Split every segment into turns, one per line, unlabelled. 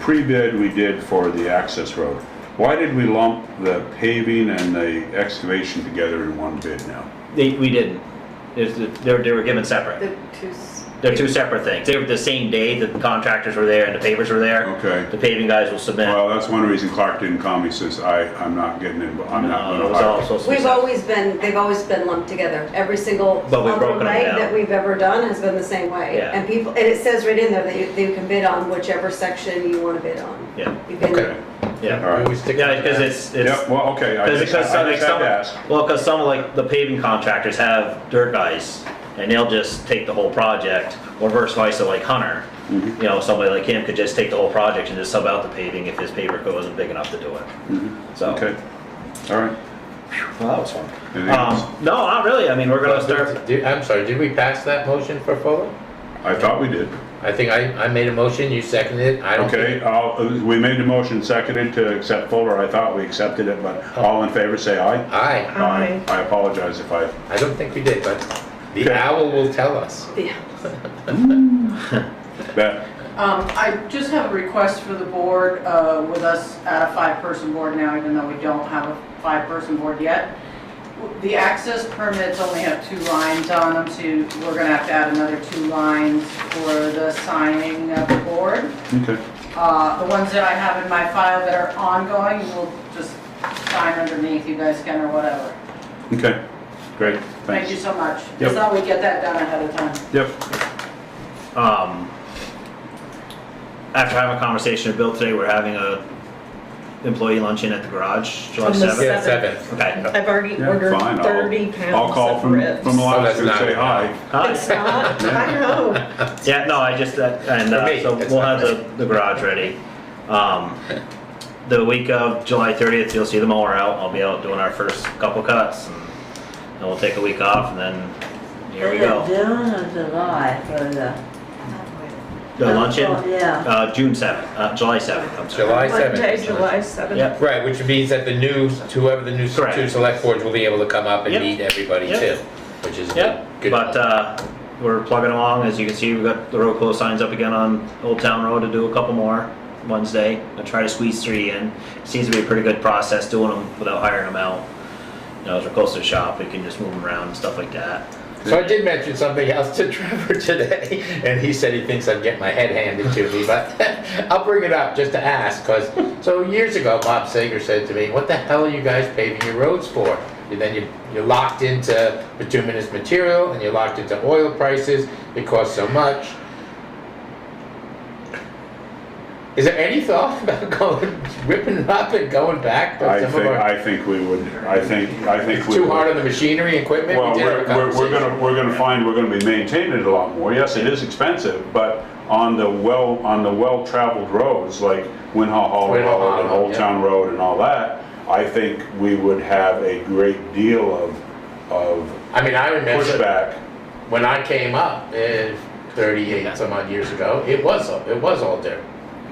pre-bid we did for the access road, why did we lump the paving and the excavation together in one bid now?
They, we didn't. It's- They were, they were given separate.
The two. s-
They're two separate things. They were the same day that the contractors were there and the pavers were there.
Okay.
The paving guys will submit.
Well, that's one reason Clark didn't call me, says I, I'm not getting in, but I'm not
No, it
gonna
was all
hire.
supposed to be
We've
separate.
always been, they've always been lumped together. Every single
But we've
other
broken 'em
night
down.
that we've ever done has been the same way.
Yeah.
And people, and it says right in there that you, that you can bid on whichever section you wanna bid on.
Yeah,
You can-
Okay,
yeah.
all right.
We stick
Yeah,
to
because
that.
it's, it's,
Yep, well, okay, I
Because
just, I
because some, like
just had
some,
to ask.
well, because some like the paving contractors have dirt guys, and they'll just take the whole project, or versus vice versa, like Hunter.
Mm-hmm.
You know, somebody like him could just take the whole project and just sub out the paving if his paper co isn't big enough to do it. So,
Mm-hmm. Okay, all right.
well, that was fun.
Anything else?
Um, no, not really, I mean, we're gonna start,
Did- I'm sorry, did we pass that motion for Fuller?
I thought we did.
I think I, I made a motion, you seconded it, I don't
Okay,
think.
I'll- uh, we made the motion seconded to accept Fuller. I thought we accepted it, but
Oh.
all in favor, say aye.
Aye,
Aye. I apologize if I,
I don't think we did, but the
Okay.
owl will tell us.
Yeah.
that,
Um, I just have a request for the board, uh, with us at a five-person board now, even though we don't have a five-person board yet. The access permits only have two lines on them, so you- we're gonna have to add another two lines for the signing of the board.
okay.
Uh, the ones that I have in my file that are ongoing, we'll just sign underneath, you guys can or whatever.
Okay, great,
Thank you
thanks.
so much.
Yep.
Just thought we'd get that done ahead of time.
Yep,
um, after having a conversation with Bill today, we're having a employee luncheon at the garage, July
On the
seventh.
Yeah,
Seven.
seven.
Okay.
I've already
Yeah,
ordered
fine, I'll-
thirty pounds
I'll call
of
from,
ribs.
from Alaska and
that's
say
not-
hi.
Hi.
It's not, Uh, I know.
Yeah, no, I just, uh, and,
For
uh,
me,
so
it's
we'll have
not-
the, the garage ready. Um, the week of July thirtieth, you'll see the mower out, I'll be out doing our first couple cuts, and then we'll take a week off, and then, here we go.
June or July for the. Oh,
The luncheon,
Yeah.
uh, June seventh, uh, July seventh, I'm sorry.
July
Monday,
seventh.
July seventh.
Yep,
Right, which means that the new, whoever the new
Correct.
two select boards will be able to come up and
Yep.
meet everybody
Yep.
too, which is good.
yep,
good.
but, uh, we're plugging along, as you can see, we've got the road closed signs up again on Old Town Road to do a couple more Wednesday, I try to squeeze three in, seems to be a pretty good process doing them without hiring them out. You know, as we're close to the shop, we can just move them around and stuff like that.
So I did mention something else to Trevor today, and he said he thinks I'd get my head handed to me, but I'll bring it up just to ask, because, so years ago, Bob Sager said to me, what the hell are you guys paving your roads for? And then you, you're locked into bituminous material, and you're locked into oil prices, it costs so much. Is there any thought about going, ripping it up and going back? to
I
some of
think,
our-
I think we would, I think, I think we
Too hard
would.
on the machinery, equipment? We
Well,
did have a
we're, we're, we're
conversation.
gonna, we're gonna find we're gonna be maintaining it a lot more. Yes, it is expensive, but on the well, on the well-traveled roads, like Winhaw Hall
Winhaw
Road
Hall,
and Old
yeah.
Town Road and all that, I think we would have a great deal of, of
I mean, I remember.
pushback.
when I came up, uh, thirty-eight some odd years ago, it was, it was all dirt.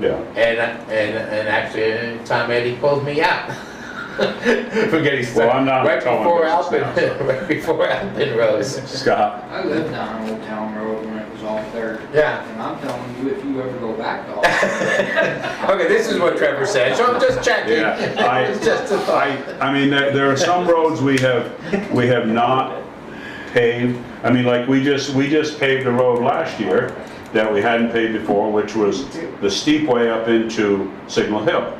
Yeah,
And, and, and actually, uh, Tom Eddie pulled me out. For getting stuck.
Well, I'm not
Right
telling
before
business now,
Alpin, right before Alpin Rose.
Scott,
I lived down Old Town Road when it was all dirt.
Yeah.
And I'm telling you, if you ever go back to Old Town Road.
Okay, this is what Trevor said, so I'm just checking.
Yeah, I-
It's just a
I,
thought.
I mean, there, there are some roads we have, we have not paved. I mean, like, we just, we just paved a road last year that we hadn't paved before, which was the steep way up into Signal Hill.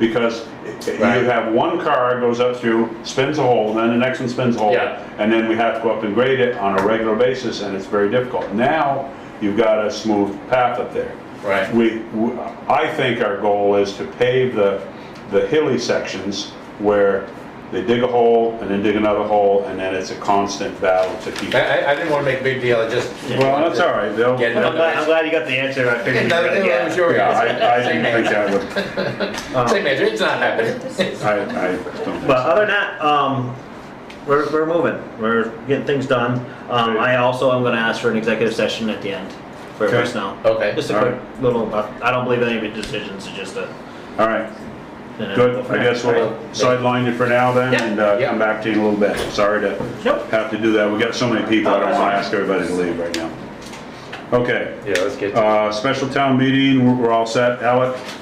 Because you
Right.
have one car goes up through, spins a hole, then the next one spins a hole.
Yeah.
And then we have to go up and grade it on a regular basis, and it's very difficult. Now, you've got a smooth path up there.
Right.
We, we- I think our goal is to pave the, the hilly sections where they dig a hole and then dig another hole, and then it's a constant battle to keep.
I, I, I didn't wanna make a big deal, I just.
Well, that's all right, they'll,
Get
I'm
another-
yeah,
glad, I'm glad you got the answer I figured you were gonna
Nothing, I'm
get.
sure.
I, I didn't think that would,
Same answer, it's not happening.
I, I don't
But
think.
other than that, um, we're, we're moving, we're getting things done. Um, I also am gonna ask for an executive session at the end for
Okay.
personnel.
Okay.
Just a
All
quick little, I don't believe any of your decisions, it's just a.
All right, good, I guess we'll sideline you for now then, and uh, come back to you in a little bit. Sorry to
Nope.
have to do that, we got so many people, I don't wanna ask everybody to leave right now. Okay,
Yeah, let's get to it.
uh, special town meeting, we're- we're all set, Alec?